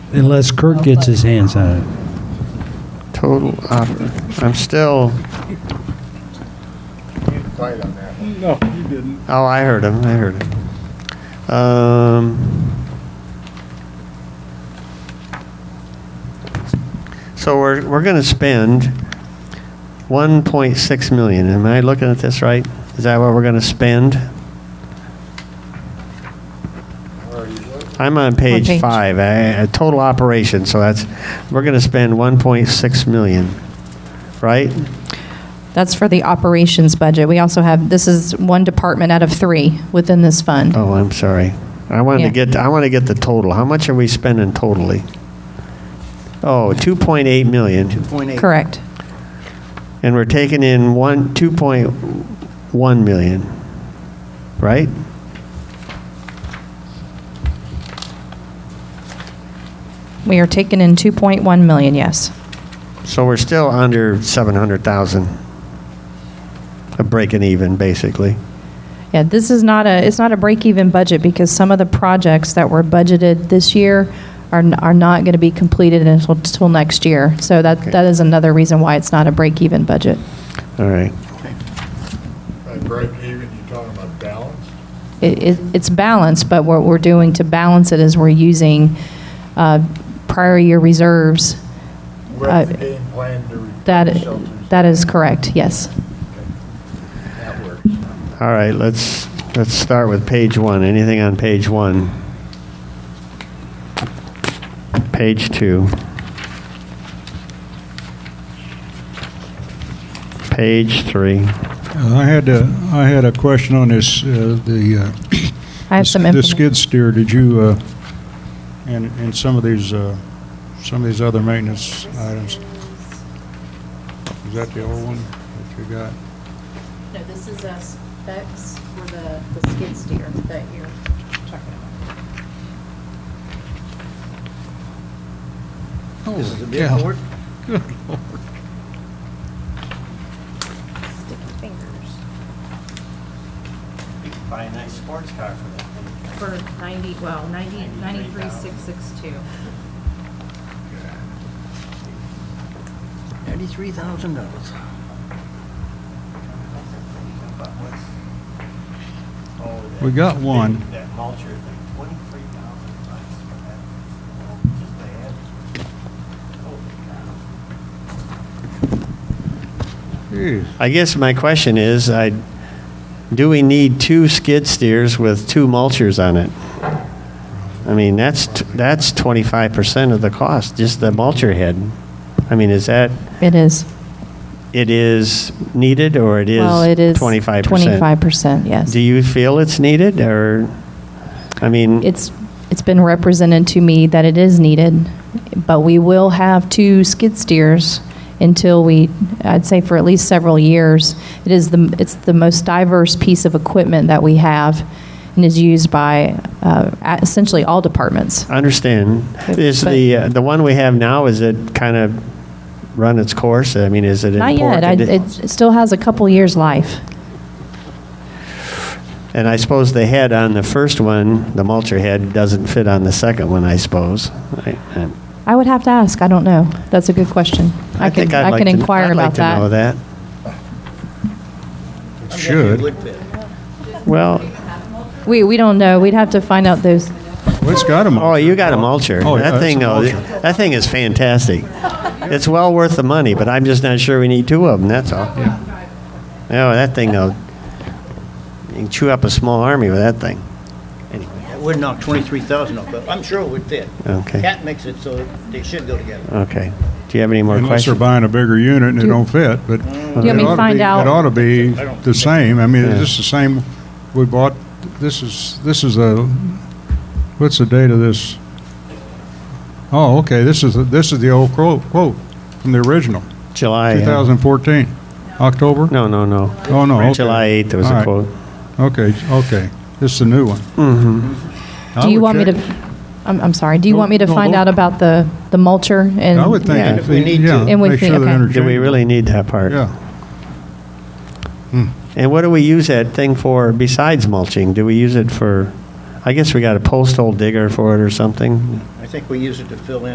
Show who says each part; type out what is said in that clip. Speaker 1: unless Kirk gets his hands on it.
Speaker 2: Total offer. I'm still,
Speaker 3: No, you didn't.
Speaker 2: oh, I heard him, I heard him. Um, so we're, we're going to spend 1.6 million. Am I looking at this right? Is that what we're going to spend? I'm on page
Speaker 4: page.
Speaker 2: five, I- I- total operation, so that's, we're going to spend 1.6 million, right?
Speaker 4: That's for the operations budget. We also have, this is one department out of three within this fund.
Speaker 2: Oh, I'm sorry. I wanted to
Speaker 4: Yeah.
Speaker 2: get, I want to get the total. How much are we spending totally? Oh, 2.8 million,
Speaker 4: Correct.
Speaker 2: and we're taking in one, 2.1 million, right?
Speaker 4: We are taking in 2.1 million, yes.
Speaker 2: So we're still under 700,000. A breaking even, basically.
Speaker 4: Yeah, this is not a, it's not a break-even budget because some of the projects that were budgeted this year are, n- are not going to be completed until, until next year. So that,
Speaker 2: Okay.
Speaker 4: that is another reason why it's not a break-even budget.
Speaker 2: All right.
Speaker 5: By break even, you're talking about balance?
Speaker 4: It, it, it's balanced, but what we're doing to balance it is we're using, uh, prior year reserves.
Speaker 5: What's the
Speaker 4: Uh,
Speaker 5: game plan to repair
Speaker 4: That,
Speaker 5: shelters?
Speaker 4: that is correct, yes.
Speaker 5: That works.
Speaker 2: All right, let's, let's start with page one. Anything on page one? Page two. Page three.
Speaker 3: I had a, I had a question on this, uh, the. uh,
Speaker 4: I have some
Speaker 3: The
Speaker 4: information.
Speaker 3: skid steer, did you, uh, and, and some of these, uh, some of these other maintenance items. Is that the old one that you got?
Speaker 4: No, this is uh, specs for the, the skid steer that you're talking about.
Speaker 6: This is a big
Speaker 3: Yeah.
Speaker 6: board?
Speaker 4: Sticky fingers.
Speaker 6: Buy a nice sports car for that thing.
Speaker 4: For 90, well, 90,
Speaker 6: 93,662. 93000 dollars.
Speaker 3: We got one.
Speaker 6: That mulcher, thing, 23,000 bucks for that. Just the head. Holy cow.
Speaker 3: Jeez.
Speaker 2: I guess my question is, I, do we need two skid steers with two mulchers on it? I mean, that's, t- that's 25% of the cost, just the mulcher head. I mean, is that,
Speaker 4: It is.
Speaker 2: it is needed, or it is
Speaker 4: Well, it is.
Speaker 2: 25%?
Speaker 4: 25%, yes.
Speaker 2: Do you feel it's needed, or, I mean,
Speaker 4: It's, it's been represented to me that it is needed, but we will have two skid steers until we, I'd say for at least several years. It is the, it's the most diverse piece of equipment that we have and is used by uh, essentially all departments.
Speaker 2: I understand.
Speaker 4: But-
Speaker 2: Is
Speaker 4: but-
Speaker 2: the, uh, the one we have now, is it kind of run its course? I mean, is it
Speaker 4: Not
Speaker 2: in
Speaker 4: yet,
Speaker 2: poor
Speaker 4: I-
Speaker 2: condi-
Speaker 4: it it still has a couple years' life.
Speaker 2: And I suppose the head on the first one, the mulcher head, doesn't fit on the second one, I suppose. I- I-
Speaker 4: I would have to ask, I don't know. That's a good question. I
Speaker 2: think
Speaker 4: can,
Speaker 2: I'd
Speaker 4: I
Speaker 2: like
Speaker 4: can
Speaker 2: to-
Speaker 4: inquire about
Speaker 2: I'd like to know that.
Speaker 3: It should.
Speaker 6: Would fit.
Speaker 2: Well,
Speaker 4: We, we don't know, we'd have to find out those.
Speaker 3: Well, it's got them.
Speaker 2: oh, you got a mulcher.
Speaker 3: Oh, yeah,
Speaker 2: That
Speaker 3: it's
Speaker 2: thing,
Speaker 3: a
Speaker 2: oh,
Speaker 3: mulcher.
Speaker 2: that thing is fantastic. It's well worth the money, but I'm just not sure we need two of them, that's all.
Speaker 3: Yeah.
Speaker 2: No, that thing, though, you can chew up a small army with that thing.
Speaker 6: It would knock 23,000 off, but I'm sure it would fit.
Speaker 2: Okay.
Speaker 6: Cat makes it so they should go together.
Speaker 2: Okay. Do you have any more
Speaker 3: Unless they're
Speaker 2: questions?
Speaker 3: buying a bigger unit and it don't fit, but.
Speaker 4: You want me
Speaker 3: it
Speaker 4: to
Speaker 3: ought
Speaker 4: find
Speaker 3: be-
Speaker 4: out?
Speaker 3: It ought to be
Speaker 6: I don't
Speaker 3: the
Speaker 6: think-
Speaker 3: same. I mean,
Speaker 2: Yeah.
Speaker 3: is this the same, we bought, this is, this is a, what's the date of this? Oh, okay, this is, this is the old quote, quote from the original,
Speaker 2: July. uh,
Speaker 3: 2014, October?
Speaker 2: No, no, no.
Speaker 3: Oh, no, okay.
Speaker 2: July 8th, there was
Speaker 3: All
Speaker 2: a
Speaker 3: right.
Speaker 2: quote.
Speaker 3: Okay, okay. This is the new one. Mm-hmm.
Speaker 4: Do you want me to, I'm, I'm sorry, do you
Speaker 3: No,
Speaker 4: want me to
Speaker 3: no,
Speaker 4: find
Speaker 3: no.
Speaker 4: out about the, the mulcher and?
Speaker 3: I would
Speaker 2: Yeah.
Speaker 3: think,
Speaker 6: If
Speaker 3: if
Speaker 6: we
Speaker 3: they-
Speaker 6: need to.
Speaker 3: yeah,
Speaker 4: And we
Speaker 3: make
Speaker 4: think-
Speaker 3: sure they're
Speaker 4: okay.
Speaker 2: Do we
Speaker 3: interchangeable.
Speaker 2: really need that part?
Speaker 3: Yeah.
Speaker 2: And what do we use that thing for besides mulching? Do we use it for, I guess we got a post hole digger for it or something.
Speaker 6: I think we use it to fill in